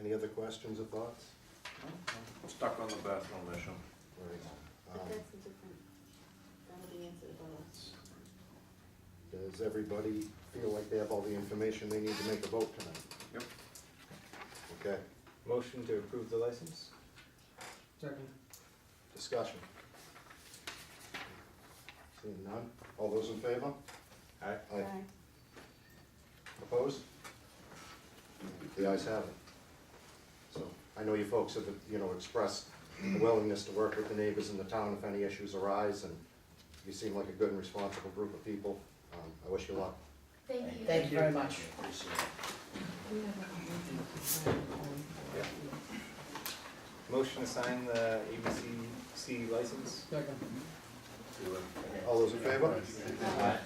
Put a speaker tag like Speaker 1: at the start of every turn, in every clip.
Speaker 1: Any other questions or thoughts?
Speaker 2: Stuck on the bathroom issue.
Speaker 1: All right,
Speaker 3: But
Speaker 1: um,
Speaker 3: that's a different, that'll be answered by us.
Speaker 1: Does everybody feel like they have all the information they need to make a vote tonight?
Speaker 2: Yep.
Speaker 1: Okay,
Speaker 4: Motion to approve the license?
Speaker 5: Second.
Speaker 1: discussion. Seeing none, all those in favor? Aye. Aye.
Speaker 3: Aye.
Speaker 1: Opposed? The ayes have it. So, I know you folks have, you know, expressed a willingness to work with the neighbors in the town if any issues arise, and you seem like a good and responsible group of people. Um, I wish you luck.
Speaker 6: Thank you.
Speaker 5: Thank you very much.
Speaker 4: Motion to sign the ABCC license?
Speaker 5: Second.
Speaker 1: All those in favor?
Speaker 4: Aye.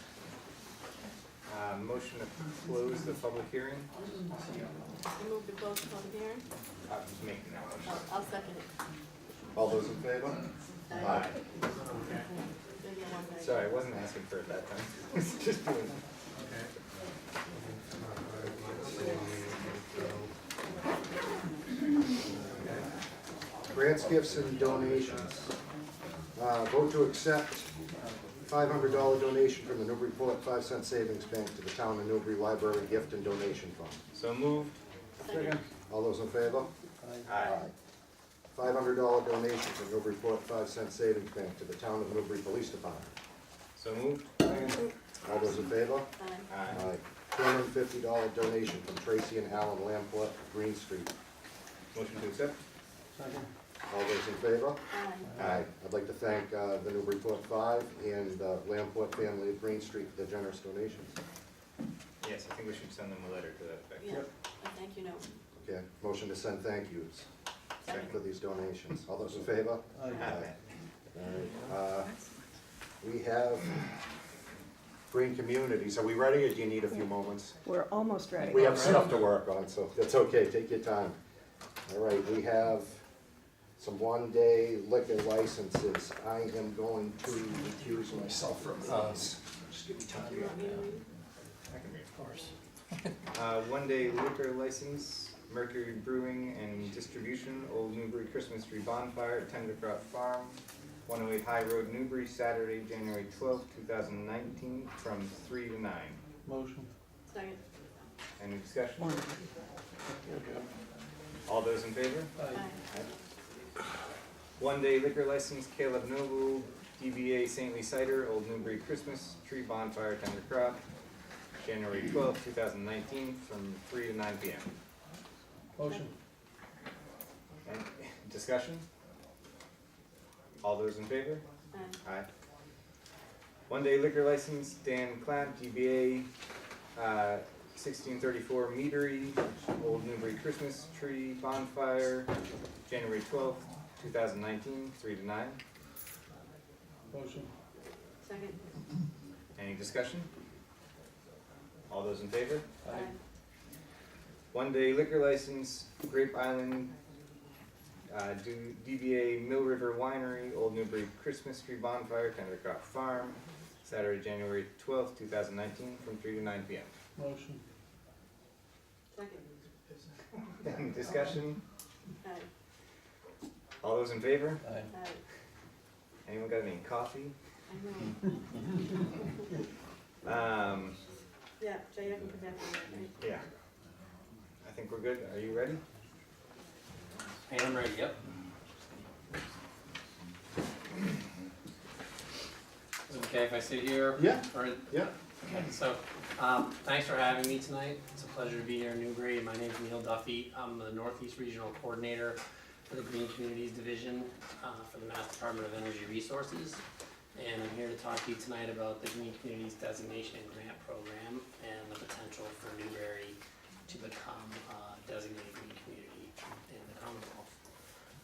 Speaker 4: Uh, motion to close the public hearing?
Speaker 3: I move to close the public hearing.
Speaker 4: I was making that motion.
Speaker 3: I'll, I'll second it.
Speaker 1: All those in favor? Aye.
Speaker 3: Maybe I won't make it.
Speaker 4: Sorry, I wasn't asking for it that time. It's just doing-
Speaker 1: Grants, gifts, and donations. Uh, Vote to accept $500 donation from the Newburyport 5 Cent Savings Bank to the Town of Newbury Library Gift and Donation Fund.
Speaker 4: So moved?
Speaker 3: Second.
Speaker 1: All those in favor?
Speaker 4: Aye.
Speaker 1: $500 donation from Newburyport 5 Cent Savings Bank to the Town of Newbury Police Department.
Speaker 4: So moved?
Speaker 1: All those in favor?
Speaker 3: Aye.
Speaker 4: Aye.
Speaker 1: $250 donation from Tracy and Alan Lamport, Green Street.
Speaker 4: Motion to accept?
Speaker 5: Second.
Speaker 1: All those in favor?
Speaker 3: Aye.
Speaker 1: Aye. I'd like to thank uh, the Newburyport Five and the Lamport family of Green Street for their generous donations.
Speaker 4: Yes, I think we should send them a letter to that effect.
Speaker 3: Yeah, a thank you note.
Speaker 1: Okay, motion to send thank yous
Speaker 3: Second.
Speaker 1: for these donations. All those in favor?
Speaker 4: Aye.
Speaker 1: All right, uh, We have Green Communities. Are we ready or do you need a few moments?
Speaker 7: We're almost ready.
Speaker 1: We have stuff to work on, so that's okay, take your time. All right, we have some one-day liquor licenses. I am going to recuse myself from these. Just give me time.
Speaker 3: You want me to read it?
Speaker 4: I can read. Of course. Uh, one day liquor license, Mercury Brewing and Distribution, Old Newbury Christmas Tree Bonfire at Tendercroft Farm, one oh eight High Road, Newbury, Saturday, January twelfth, two thousand nineteen, from three to nine.
Speaker 5: Motion.
Speaker 3: Second.
Speaker 4: Any discussion?
Speaker 7: One.
Speaker 4: All those in favor?
Speaker 3: Aye.
Speaker 4: One day liquor license, Caleb Noble, DBA Saintly Cider, Old Newbury Christmas Tree Bonfire, Tendercroft, January twelfth, two thousand nineteen, from three to nine P M.
Speaker 5: Motion.
Speaker 4: Any Discussion? All those in favor?
Speaker 3: Aye.
Speaker 4: Aye. One day liquor license, Dan Clamp, DBA, uh, sixteen thirty-four Meadery, Old Newbury Christmas Tree Bonfire, January twelfth, two thousand nineteen, three to nine.
Speaker 5: Motion.
Speaker 3: Second.
Speaker 4: Any discussion? All those in favor?
Speaker 3: Aye.
Speaker 4: One day liquor license, Grape Island, uh, do- DBA Mill River Winery, Old Newbury Christmas Tree Bonfire, Tendercroft Farm, Saturday, January twelfth, two thousand nineteen, from three to nine P M.
Speaker 5: Motion.
Speaker 3: Second.
Speaker 4: Any discussion?
Speaker 3: Aye.
Speaker 4: All those in favor?
Speaker 5: Aye.
Speaker 3: Aye.
Speaker 4: Anyone got any coffee?
Speaker 3: I know.
Speaker 4: Um,
Speaker 3: Yeah, Jay, I can come back to that, right?
Speaker 4: yeah. I think we're good. Are you ready?
Speaker 8: Hey, I'm ready, yep. Is it okay if I sit here?
Speaker 1: Yeah,
Speaker 8: Or
Speaker 1: yeah.
Speaker 8: Okay, so, um, thanks for having me tonight. It's a pleasure to be here in Newbury. My name's Neil Duffy. I'm the Northeast Regional Coordinator for the Green Communities Division, uh, for the Mass Department of Energy Resources. And I'm here to talk to you tonight about the Green Communities Designation and Grant Program and the potential for Newbury to become a designated green community in the Commonwealth.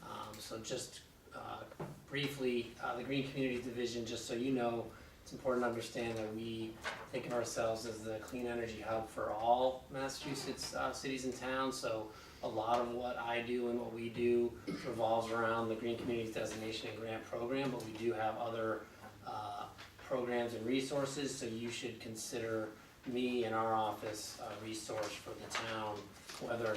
Speaker 8: Um, so just, uh, briefly, uh, the Green Communities Division, just so you know, it's important to understand that we think of ourselves as the clean energy hub for all Massachusetts uh, cities and towns. So a lot of what I do and what we do revolves around the Green Communities Designation and Grant Program, but we do have other uh, programs and resources. So you should consider me and our office a resource for the town, whether or